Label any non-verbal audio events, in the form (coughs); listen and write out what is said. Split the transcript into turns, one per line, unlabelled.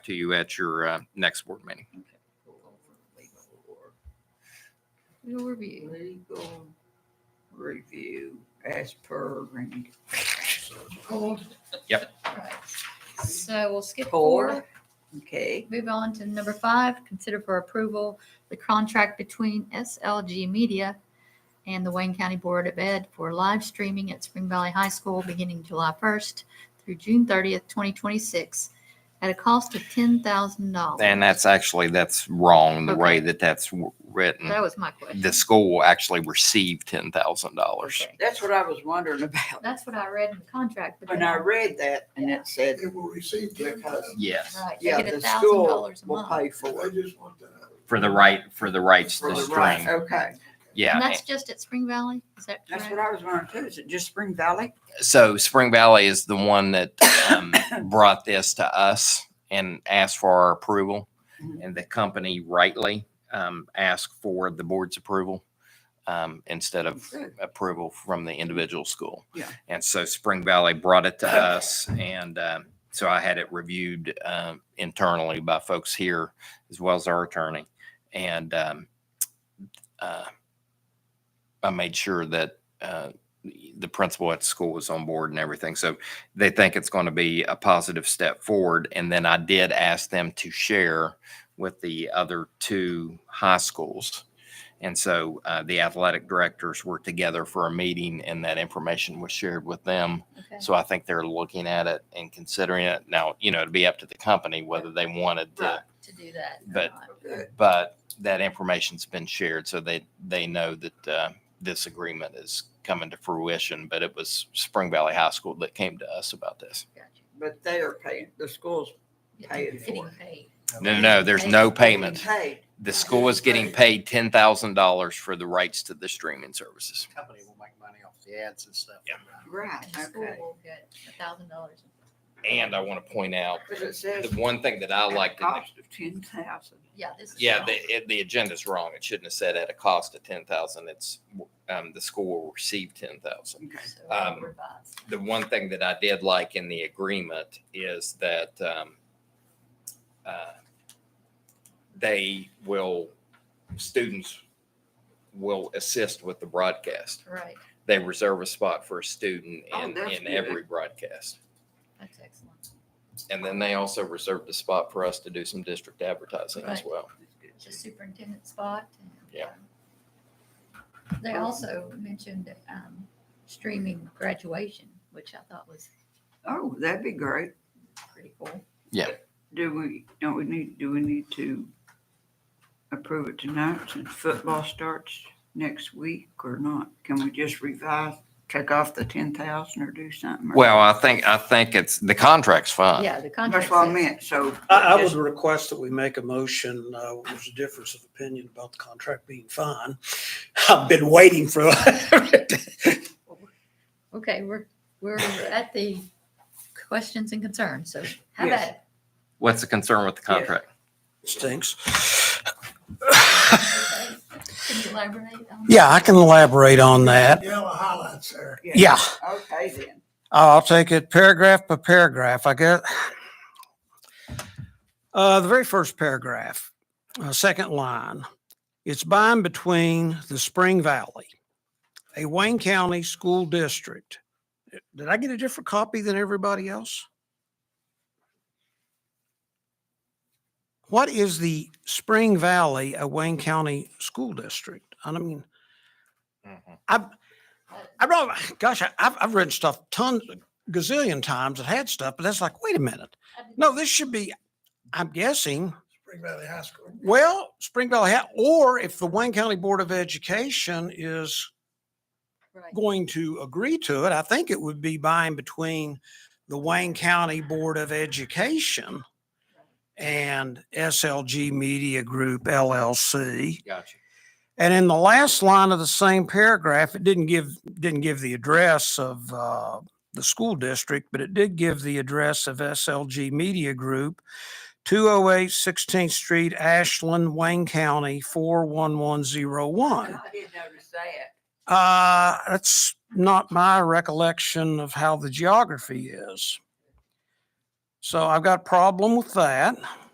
to you at your uh, next board meeting.
Legal review.
Legal review as per and
Right. So we'll skip
Four.
four.
Okay,
Move on to number five, consider for approval the contract between SLG Media and the Wayne County Board of Ed for live streaming at Spring Valley High School beginning July 1st through June 30th, 2026, at a cost of $10,000.
And that's actually, that's wrong, the way
Okay.
that that's w- written.
That was my question.
The school actually received $10,000.
Okay.
that's what I was wondering about.
That's what I read in the contract. but
When
then-
I read that and it said,
They will receive ten thousand.
Yes,
Right, they
yeah,
get
the school
$1,000 a
will
month.
pay for
I
it.
just want that.
for the right, for the rights
For
to
the
Right,
stream.
okay.
Yeah.
And that's just at Spring Valley? Is that
That's
correct?
what I was wondering too. Is it just Spring Valley?
so Spring Valley is the one that
(coughs)
um, brought this to us and asked for our approval,
Mhm.
and the company rightly um, asked for the board's approval um, instead of
Good.
approval from the individual school.
Yeah.
And so Spring Valley brought
(coughs)
it to us, and um, so I had it reviewed um, internally by folks here as well as our attorney, and um, uh, I made sure that. Uh, the principal at school was on board and everything. So they think it's going to be a positive step forward. And then I did ask them to share with the other two high schools. And so uh, the athletic directors were together for a meeting and that information was shared with them.
Okay.
So I think they're looking at it and considering it. Now, you know, it'd be up to the company whether they wanted to
Right.
To do that. or
But-
not.
Good.
but that information's been shared so they they know that uh, this agreement is coming to fruition but it was spring valley high school that came to us about this
Gotcha.
But they are paying, the school's Pay it
Getting
forward.
paid.
no no, no there's no
being
payment
paid.
the school is getting paid $10000 for the rights to the streaming services
company will make money off the ads and stuff.
Yeah.
Right,
And the school
okay.
will get a thousand dollars.
and i want to point out
But it
the
says.
one thing that i
at a
liked in the
Cost of ten thousand.
Yeah, this is.
Yeah,
wrong.
the, it- the agenda's wrong. It shouldn't have said at a cost of ten thousand. It's, um, the school will receive ten thousand.
Okay.
So I'll
um,
revise.
The one thing that I did like in the agreement is that, um, uh, they will, students will assist with the broadcast.
Right,
They reserve a spot for a student
Oh,
in,
that's
in
good.
every broadcast.
that's excellent.
And then they also reserved a spot for us to do some district advertising as
Right.
well.
It's a superintendent spot. and,
Yeah.
um, They also mentioned um, streaming graduation, which I thought was
Oh, that'd be great.
pretty cool.
Do we, don't we need, do we need to approve it tonight since football starts next week or not? Can we just revise, take off the ten thousand or do something? or-
Well, I think, I think it's, the contract's fine.
Yeah, the contract.
That's what I
says-
meant, so.
I, I would
just-
request that we make a motion, uh, there's a difference of opinion about the contract being fine. (laughs) I've been waiting for (laughs)
Okay, we're, we're at the questions and concerns, so how
Yes.
about it?
What's the concern with the
Yeah.
contract?
Stinks.
Can you elaborate on?
Yeah, I can elaborate on that.
Yellow highlights there.
Yeah,
Okay then.
I'll take it paragraph by paragraph, I guess. Uh, the very first paragraph, uh, second line, it's by and between the Spring Valley, a Wayne County school district. Did I get a different copy than everybody else? What is the Spring Valley, a Wayne County school district? I mean,
Mm-hmm.
I've, I wrote, gosh, I, I've, I've written stuff tons, gazillion times that had stuff, but that's like, wait a minute. No, this should be, I'm guessing,
Spring Valley High School.
well, Spring Valley, ha- or if the Wayne County Board of Education is
Right.
going to agree to it, I think it would be by and between the Wayne County Board of Education and SLG Media Group LLC.
Gotcha.
And in the last line of the same paragraph, it didn't give, didn't give the address of uh, the school district, but it did give the address of SLG Media Group, 208 16th Street, Ashland, Wayne County, 41101.
I did notice that.
Uh, that's not my recollection of how the geography is. So I've got a problem with that.